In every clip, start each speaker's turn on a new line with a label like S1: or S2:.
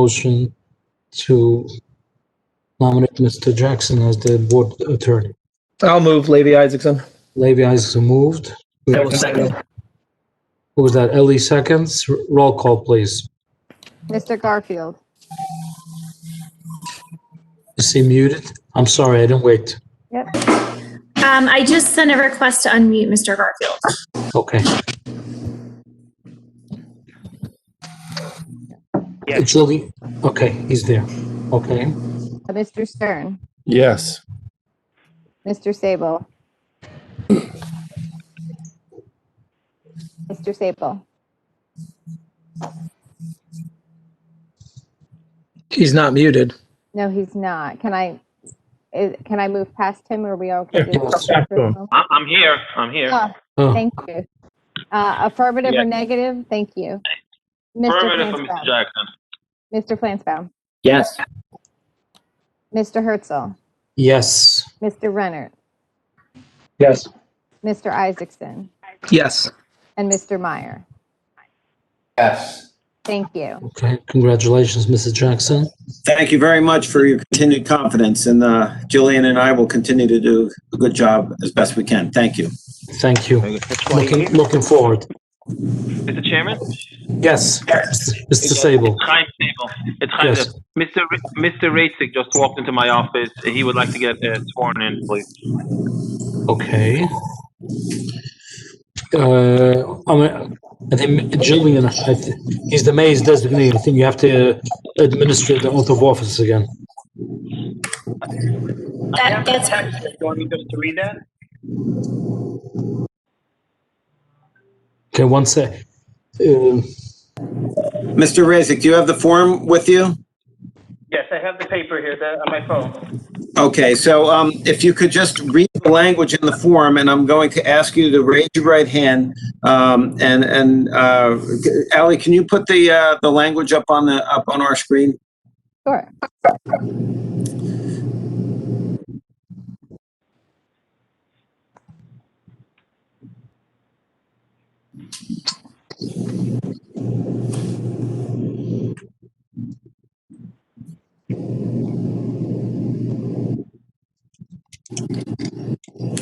S1: motion to nominate Mr. Jackson as the board attorney.
S2: I'll move Levy Isaacson.
S1: Levy Isaacson moved.
S3: I will second.
S1: Who was that? Ellie seconds. R- Roll call, please.
S4: Mr. Garfield,
S1: Is he muted? I'm sorry, I didn't wait.
S3: Um, I just sent a request to unmute Mr. Garfield.
S1: Okay.
S5: Yeah.
S1: It's Lily. Okay, he's there. Okay.
S4: uh, Mr. Stern,
S6: Yes.
S4: Mr. Sable. Mr. Sable,
S2: He's not muted.
S4: no, he's not. Can I, is, can I move past him or we okay?
S6: Yeah,
S1: yes.
S6: Back to him.
S5: I- I'm here, I'm here.
S4: Oh,
S1: Oh,
S4: Thank you. Uh, affirmative
S5: Yeah.
S4: or negative? Thank you. Mr.
S5: Affirmative for Mr.
S4: Flansbrough,
S5: Jackson.
S4: Mr. Flansbrough,
S3: Yes.
S4: Mr. Herzl,
S1: yes.
S4: Mr. Renner,
S2: Yes.
S4: Mr. Isaacson,
S2: Yes.
S4: and Mr. Meyer. Yes. Thank you.
S1: Okay, congratulations, Mrs. Jackson.
S7: Thank you very much for your continued confidence, and uh, Jillian and I will continue to do a good job as best we can. Thank you.
S1: Thank you. Looking, looking forward.
S5: Mr. Chairman,
S1: Yes, Mr. Sable.
S5: time table. It's time
S1: Yes.
S5: to, Mr. Ra- Mr. Raisik just walked into my office. He would like to get uh, sworn in, please.
S1: Okay. Uh, I mean, I think Jillian, I th- he's the mayor's designee. I think you have to administer the oath of office again.
S3: That, that's,
S8: Do you want me just to read that?
S1: Okay, one sec. Um,
S7: Mr. Raisik, do you have the form with you?
S8: Yes, I have the paper here that, on my phone.
S7: Okay, so um, if you could just read the language in the form, and I'm going to ask you to raise your right hand. Um, And, and uh, Ally, can you put the, uh, the language up on the, up on our screen?
S4: Sure.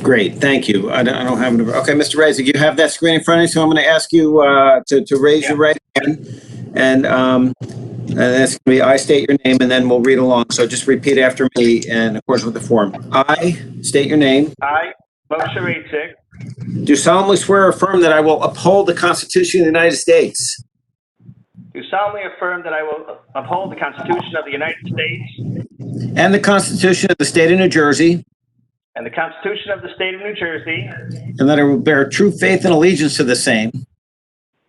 S7: Great, thank you. I don't, I don't have, it. okay, Mr. Raisik, you have that screen in front of you, so I'm going to ask you uh, to, to raise your right hand. And, um, and that's going to be, I state your name, and then we'll read along. So just repeat after me, and of course with the form. I state your name,
S8: I, Moshe Raisik,
S7: do solemnly swear or affirm that I will uphold the Constitution of the United States.
S8: do solemnly affirm that I will uphold the Constitution of the United States
S7: And the Constitution of the State of New Jersey.
S8: and the Constitution of the State of New Jersey,
S7: And that I will bear true faith and allegiance to the same.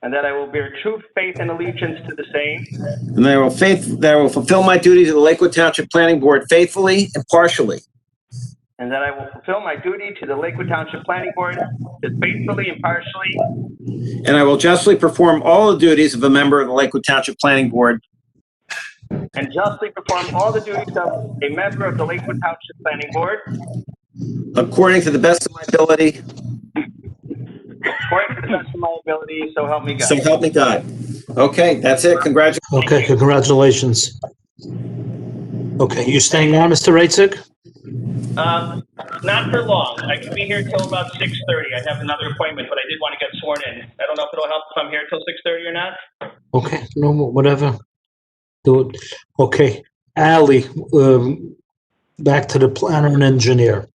S8: and that I will bear true faith and allegiance to the same,
S7: And that I will faith, that I will fulfill my duties of the Lakewood Township Planning Board faithfully and partially.
S8: and that I will fulfill my duty to the Lakewood Township Planning Board to faithfully and impartially,
S7: And I will justly perform all the duties of a member of the Lakewood Township Planning Board
S8: and justly perform all the duties of a member of the Lakewood Township Planning Board
S7: according to the best of my ability.
S8: according to the best of my ability, so help me God.
S7: So help me God. Okay, that's it. Congratulations.
S1: Okay, congratulations. Okay, you staying on, Mr. Raisik?
S8: Um, not for long. I could be here till about six thirty. I have another appointment, but I did want to get sworn in. I don't know if it'll help if I'm here till six thirty or not.
S1: Okay, no, mo- whatever. Do it. Okay, Ali, um, back to the planner and engineer.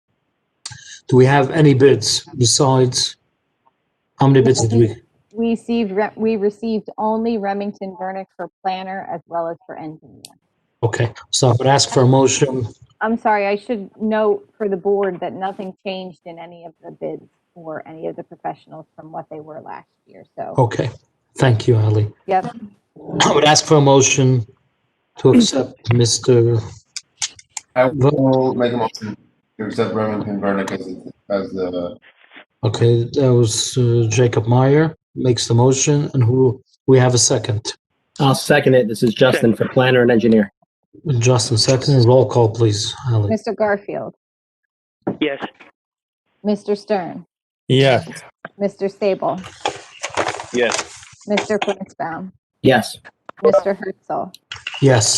S1: Do we have any bids besides? How many bids did we?
S4: We received, re- we received only Remington Vernick for planner as well as for engineer.
S1: Okay, so I would ask for a motion.
S4: I'm sorry, I should note for the board that nothing changed in any of the bids or any of the professionals from what they were last year, so,
S1: Okay, thank you, Ali.
S4: yep.
S1: I would ask for a motion to accept Mr.
S9: I will make a motion to accept Remington Vernick as, the- as the,
S1: Okay, that was uh, Jacob Meyer makes the motion and who, we have a second.
S3: I'll second it. This is Justin for planner and engineer.
S1: Justin, second, roll call, please, Ali.
S4: Mr. Garfield,
S8: Yes.
S4: Mr. Stern,
S6: Yes.
S4: Mr. Sable,
S5: Yes.
S4: Mr. Flansbrough,
S3: Yes.
S4: Mr. Herzl,
S1: Yes.